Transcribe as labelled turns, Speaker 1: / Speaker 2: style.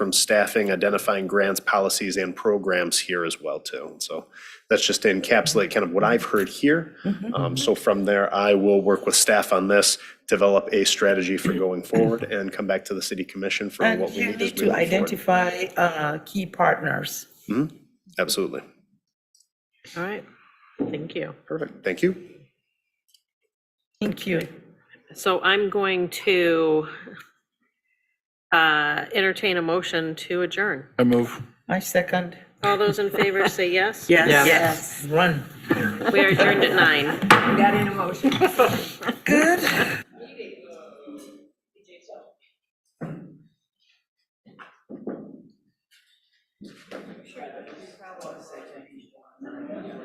Speaker 1: from staffing, identifying grants, policies, and programs here as well too. So that's just to encapsulate kind of what I've heard here.
Speaker 2: Mm-hmm,
Speaker 1: Um, So from there, I will work with staff on this, develop a strategy for going forward, and come back to the city commission for
Speaker 2: And
Speaker 1: what we
Speaker 2: you
Speaker 1: need as
Speaker 2: need
Speaker 1: we
Speaker 2: to
Speaker 1: move forward. Mm-hmm.
Speaker 2: identify uh, key partners.
Speaker 1: Absolutely.
Speaker 3: All right, thank you.
Speaker 1: Perfect. Thank you.
Speaker 2: Thank you.
Speaker 3: So I'm going to uh entertain a motion to adjourn.
Speaker 4: I move.
Speaker 2: My second.
Speaker 3: All those in favor say yes?
Speaker 2: Yes. Run.
Speaker 3: We are adjourned at nine.
Speaker 2: Good.